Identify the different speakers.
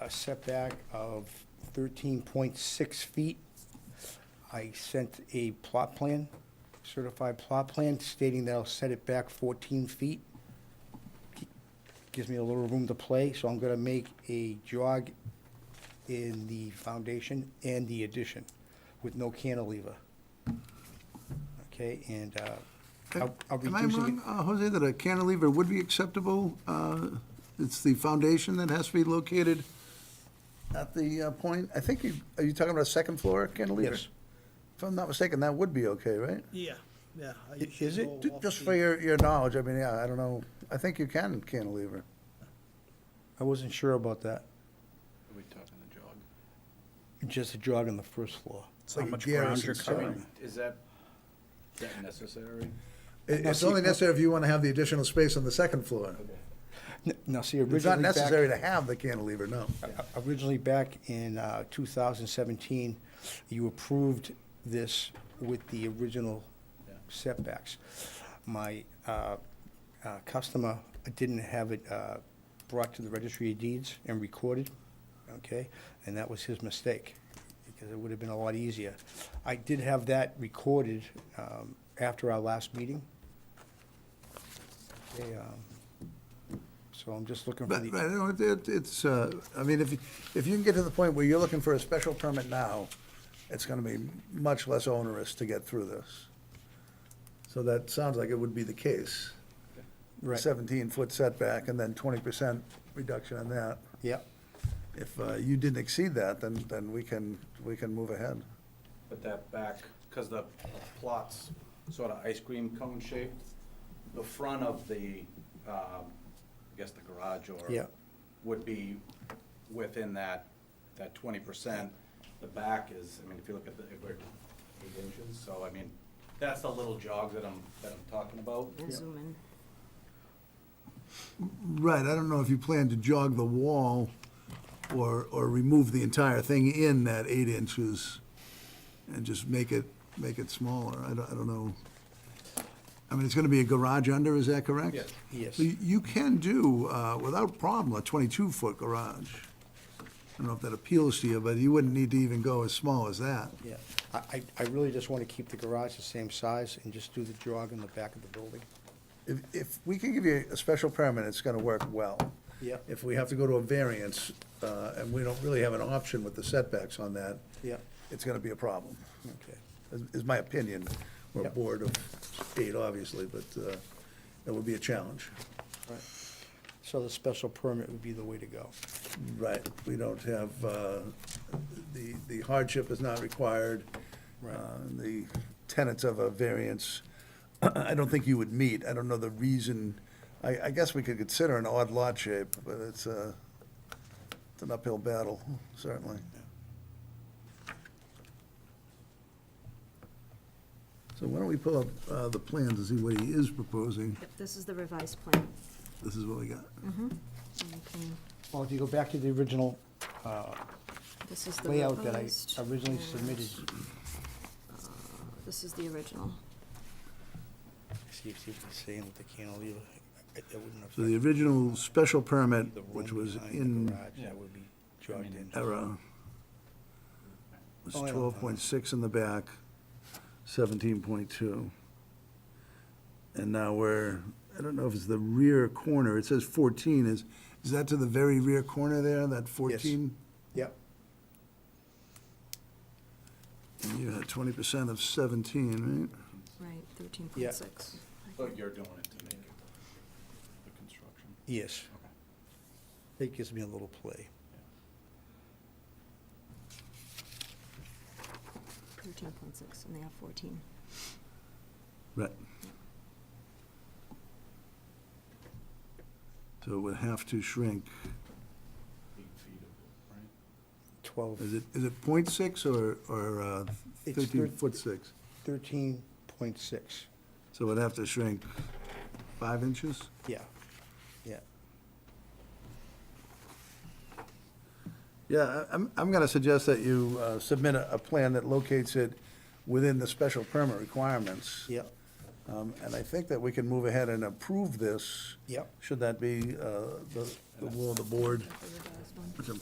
Speaker 1: a setback of thirteen point six feet. I sent a plot plan, certified plot plan stating that I'll set it back fourteen feet. Gives me a little room to play, so I'm gonna make a jog in the foundation and the addition with no cantilever. Okay, and, uh, I'll- I'll
Speaker 2: Am I
Speaker 1: reducing it.
Speaker 2: wrong, uh, Jose, that a cantilever would be acceptable? Uh, It's the foundation that has to be located at the uh, point, I think you, are you talking about a second floor cantilever?
Speaker 1: Yes.
Speaker 2: If I'm not mistaken, that would be okay, right?
Speaker 3: Yeah, yeah. I
Speaker 1: Is
Speaker 3: usually
Speaker 1: it?
Speaker 3: go
Speaker 2: Ju-
Speaker 3: off
Speaker 2: Just
Speaker 3: the-
Speaker 2: for your, your knowledge, I mean, yeah, I don't know, I think you can cantilever.
Speaker 1: I wasn't sure about that.
Speaker 4: Are we talking the jog?
Speaker 1: Just a jog on the first floor.
Speaker 2: How much ground you're
Speaker 4: I mean, is that, is that necessary?
Speaker 2: It's only necessary if you want to have the additional space on the second floor.
Speaker 1: N- Now, see, originally
Speaker 2: It's not
Speaker 1: back-
Speaker 2: necessary to have the cantilever, no.
Speaker 1: o- Originally, back in uh, 2017, you approved this with the original
Speaker 4: Yeah.
Speaker 1: setbacks. My uh, uh, customer didn't have it uh, brought to the registry of deeds and recorded, okay? And that was his mistake, because it would have been a lot easier. I did have that recorded um, after our last meeting. Okay, um, So I'm just looking for
Speaker 2: But,
Speaker 1: the...
Speaker 2: right, you know, it- it- it's, uh, I mean, if, you- if you can get to the point where you're looking for a special permit now, it's gonna be much less onerous to get through this. So that sounds like it would be the case.
Speaker 1: Right.
Speaker 2: Seventeen-foot setback and then twenty percent reduction on that.
Speaker 1: Yep.
Speaker 2: If uh, you didn't exceed that, then, then we can, we can move ahead.
Speaker 4: But that back, because the plot's sort of ice cream cone shaped, the front of the, um, I guess the garage or.
Speaker 1: Yeah.
Speaker 4: Would be within that, that twenty percent. The back is, I mean, if you look at the, if we're eight inches, so I mean, that's the little jog that I'm, that I'm talking about.
Speaker 5: and zoom in.
Speaker 2: Right, I don't know if you plan to jog the wall or, or remove the entire thing in that eight inches and just make it, make it smaller. I don't, I don't know. I mean, it's gonna be a garage under, is that correct?
Speaker 4: Yes.
Speaker 1: Yes.
Speaker 2: So You you can do, uh, without problem, a twenty-two foot garage. I don't know if that appeals to you, but you wouldn't need to even go as small as that.
Speaker 1: Yeah, I, I- I really just want to keep the garage the same size and just do the jog in the back of the building.
Speaker 2: If, if we can give you a special permit, it's gonna work well.
Speaker 1: Yeah.
Speaker 2: If we have to go to a variance, uh, and we don't really have an option with the setbacks on that.
Speaker 1: Yeah.
Speaker 2: It's gonna be a problem,
Speaker 1: Okay.
Speaker 2: is, is my opinion. We're
Speaker 1: Yeah.
Speaker 2: a board of eight, obviously, but, uh, it would be a challenge.
Speaker 1: Right. So the special permit would be the way to go.
Speaker 2: Right, we don't have, uh, the, the hardship is not required.
Speaker 1: Right.
Speaker 2: Uh, The tenets of a variance, I don't think you would meet. I don't know the reason. I, I guess we could consider an odd lot shape, but it's a, it's an uphill battle, certainly. So why don't we pull up, uh, the plans and see what he is proposing?
Speaker 5: Yep, this is the revised plan.
Speaker 2: This is what we got.
Speaker 5: And you can-
Speaker 1: Well, if you go back to the original uh,
Speaker 5: This is the
Speaker 1: layout that I
Speaker 5: revised.
Speaker 1: originally
Speaker 5: and
Speaker 1: submitted,
Speaker 5: This is the original.
Speaker 1: see if it's the same with the cantilever. I- I wouldn't have-
Speaker 2: So the original special permit,
Speaker 1: The room
Speaker 2: which was
Speaker 1: behind the
Speaker 2: in
Speaker 1: garage, That would be jogged in.
Speaker 2: error, was
Speaker 1: Oh, I don't
Speaker 2: twelve point six in the back, seventeen point two. And now we're, I don't know if it's the rear corner, it says fourteen, is, is that to the very rear corner there, that fourteen?
Speaker 1: Yep,
Speaker 2: You had twenty percent of seventeen, right?
Speaker 5: Right, thirteen point six.
Speaker 4: But you're doing it to make it the construction.
Speaker 1: yes.
Speaker 4: Okay.
Speaker 1: That gives me a little play.
Speaker 5: Thirteen point six, and they have fourteen.
Speaker 2: Right. So it would have to shrink,
Speaker 4: Eight feet of it, right?
Speaker 1: Twelve,
Speaker 2: is it, is it point six or, or uh,
Speaker 1: It's
Speaker 2: thirteen
Speaker 1: thir-
Speaker 2: foot six?
Speaker 1: thirteen point six,
Speaker 2: So it would have to shrink five inches?
Speaker 1: yeah, yeah.
Speaker 2: Yeah, I- I'm, I'm going to suggest that you uh, submit a, a plan that locates it within the special permit requirements.
Speaker 1: Yep,
Speaker 2: Um, And I think that we can move ahead and approve this.
Speaker 1: Yep.
Speaker 2: Should that be uh, the the will of the board?
Speaker 5: The revised one.
Speaker 2: Which I'm